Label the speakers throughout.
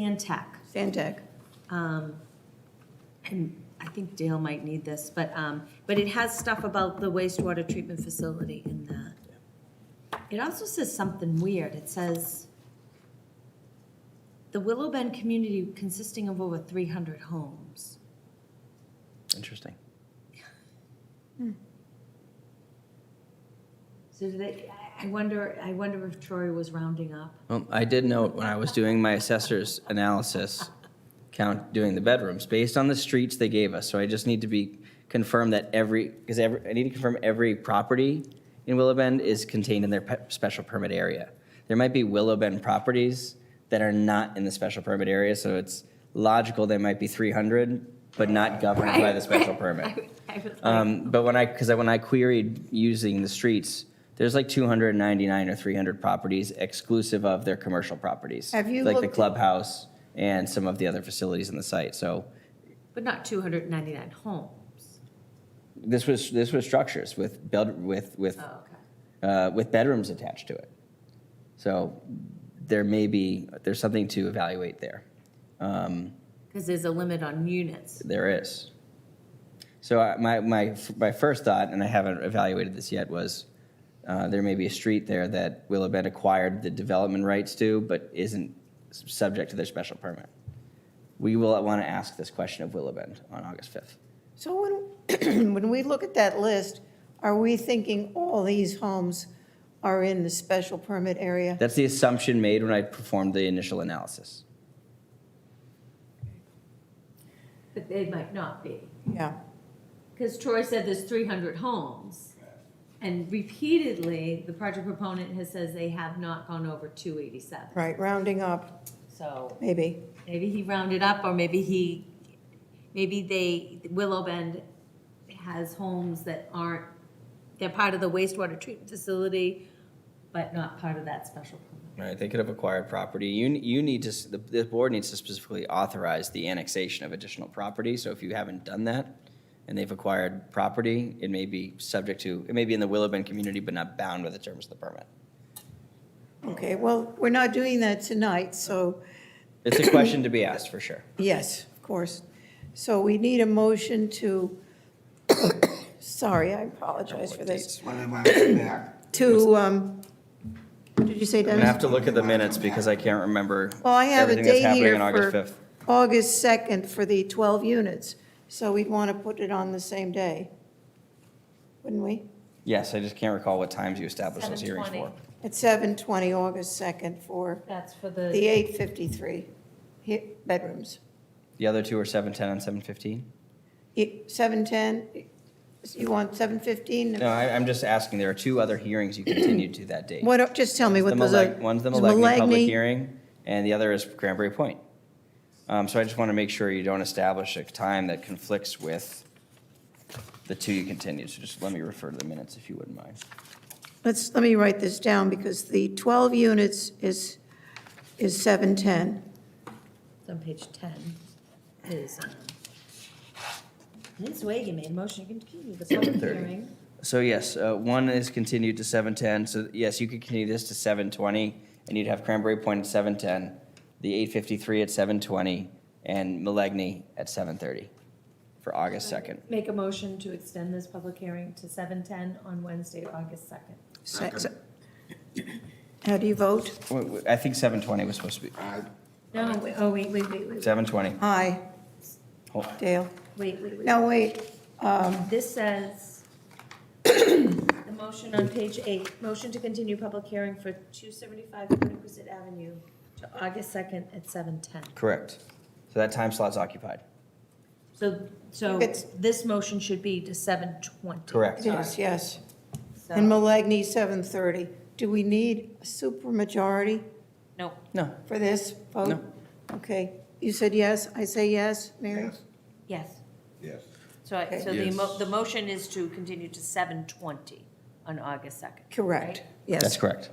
Speaker 1: Sandtech.
Speaker 2: Sandtech.
Speaker 1: um, And I think Dale might need this, but, um, but it has stuff about the wastewater treatment facility in that. It also says something weird. It says, "The Willow Bend community consisting of over 300 homes."
Speaker 3: Interesting.
Speaker 1: So do they, I- I wonder, I wonder if Troy was rounding up.
Speaker 3: Well, I did note when I was doing my assessor's analysis, count doing the bedrooms, based on the streets they gave us, so I just need to be confirmed that every, because every, I need to confirm every property in Willow Bend is contained in their pe- special permit area. There might be Willow Bend properties that are not in the special permit area, so it's logical there might be three hundred, but not governed by the special permit.
Speaker 1: I was like,
Speaker 3: Um, but when I, because when I queried using the streets, there's like 299 or 300 properties exclusive of their commercial properties.
Speaker 2: Have you
Speaker 3: Like the
Speaker 2: looked-
Speaker 3: clubhouse and some of the other facilities in the site. So
Speaker 1: But not 299 homes.
Speaker 3: this was, this was structures with, bed- with, with,
Speaker 1: Oh, okay.
Speaker 3: uh, with bedrooms attached to it. So there may be, there's something to evaluate there. Um,
Speaker 1: Because there's a limit on units.
Speaker 3: There is. So I- my, my, my first thought, and I haven't evaluated this yet, was uh, there may be a street there that Willow Bend acquired the development rights to, but isn't s- subject to their special permit. We will want to ask this question of Willow Bend on August 5th.
Speaker 2: So when, when we look at that list, are we thinking all these homes are in the special permit area?
Speaker 3: That's the assumption made when I performed the initial analysis.
Speaker 1: But they might not be.
Speaker 2: Yeah.
Speaker 1: Because Troy said there's three hundred homes, and repeatedly, the project proponent has says they have not gone over two eighty-seven.
Speaker 2: Right, rounding up,
Speaker 1: So
Speaker 2: maybe.
Speaker 1: maybe he rounded up, or maybe he, maybe they, Willow Bend has homes that aren't, they're part of the wastewater treatment facility, but not part of that special permit.
Speaker 3: Right, they could have acquired property. You, you need to, s- the, the board needs to specifically authorize the annexation of additional property. So if you haven't done that and they've acquired property, it may be subject to, it may be in the Willow Bend community, but not bound by the terms of the permit.
Speaker 2: Okay, well, we're not doing that tonight, so
Speaker 3: It's a question to be asked for sure.
Speaker 2: yes, of course. So we need a motion to, sorry, I apologize for this,
Speaker 4: When am I coming back?
Speaker 2: to, um, did you say
Speaker 3: I'm gonna
Speaker 2: Dennis?
Speaker 3: have to look at the minutes because I can't remember
Speaker 2: Well, I have a
Speaker 3: everything that's
Speaker 2: date
Speaker 3: happening
Speaker 2: here
Speaker 3: on August
Speaker 2: for
Speaker 3: 5th.
Speaker 2: August 2nd for the 12 units, so we'd want to put it on the same day, wouldn't we?
Speaker 3: Yes, I just can't recall what times you established those hearings for.
Speaker 1: 7:20.
Speaker 2: At 7:20, August 2nd, for
Speaker 1: That's for
Speaker 2: the
Speaker 1: the,
Speaker 2: 853 he- bedrooms.
Speaker 3: The other two are 7:10 and 7:15?
Speaker 2: E- 7:10, you want 7:15?
Speaker 3: No, I, I'm just asking, there are two other hearings you continued to that date.
Speaker 2: What, just tell me
Speaker 3: The
Speaker 2: what those are.
Speaker 3: Maleg- One's the
Speaker 2: Is
Speaker 3: Malegny public
Speaker 2: Milagney-
Speaker 3: hearing, and the other is Cranberry Point. Um, So I just want to make sure you don't establish a time that conflicts with the two you continued. So just let me refer to the minutes if you wouldn't mind.
Speaker 2: Let's, let me write this down, because the 12 units is, is 7:10.
Speaker 1: it's on page ten, is, um, Ms. Wagy made a motion to continue the public
Speaker 3: 7:30.
Speaker 1: hearing.
Speaker 3: So yes, uh, one is continued to 7:10. So yes, you could continue this to 7:20, and you'd have Cranberry Point at 7:10, the 8:53 at 7:20, and Milagney at 7:30 for August 2nd.
Speaker 1: Make a motion to extend this public hearing to seven ten on Wednesday, August second.
Speaker 2: Se- se- How do you vote?
Speaker 3: Wait, wait, I think 7:20 was supposed to be,
Speaker 4: I,
Speaker 1: No, wait, oh, wait, wait, wait, wait,
Speaker 3: 7:20.
Speaker 2: Aye,
Speaker 3: Hold-
Speaker 2: Dale.
Speaker 1: wait, wait, wait.
Speaker 2: Now, wait,
Speaker 1: This says, the motion on page eight, motion to continue public hearing for two seventy-five Quinnequisset Avenue to August second at seven ten.
Speaker 3: Correct. So that time slot's occupied.
Speaker 1: So, so
Speaker 2: It's-
Speaker 1: this motion should be to seven twenty.
Speaker 3: Correct.
Speaker 2: it is, yes. And Milagney, 7:30. Do we need a supermajority
Speaker 1: No,
Speaker 3: No,
Speaker 2: for this vote?
Speaker 3: No.
Speaker 2: Okay, you said yes, I say yes, Mary?
Speaker 4: yes,
Speaker 1: yes,
Speaker 4: yes.
Speaker 1: so, I- so the,
Speaker 4: Yes.
Speaker 1: mo- the motion is to continue to seven twenty on August second.
Speaker 2: Correct, yes.
Speaker 3: that's correct.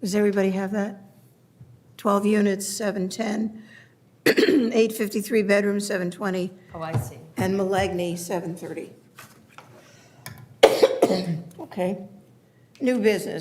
Speaker 2: Does everybody have that? 12 units, 710, 853 bedrooms, 720,
Speaker 1: Oh, I see.
Speaker 2: and Milagney, 730. Okay. New business.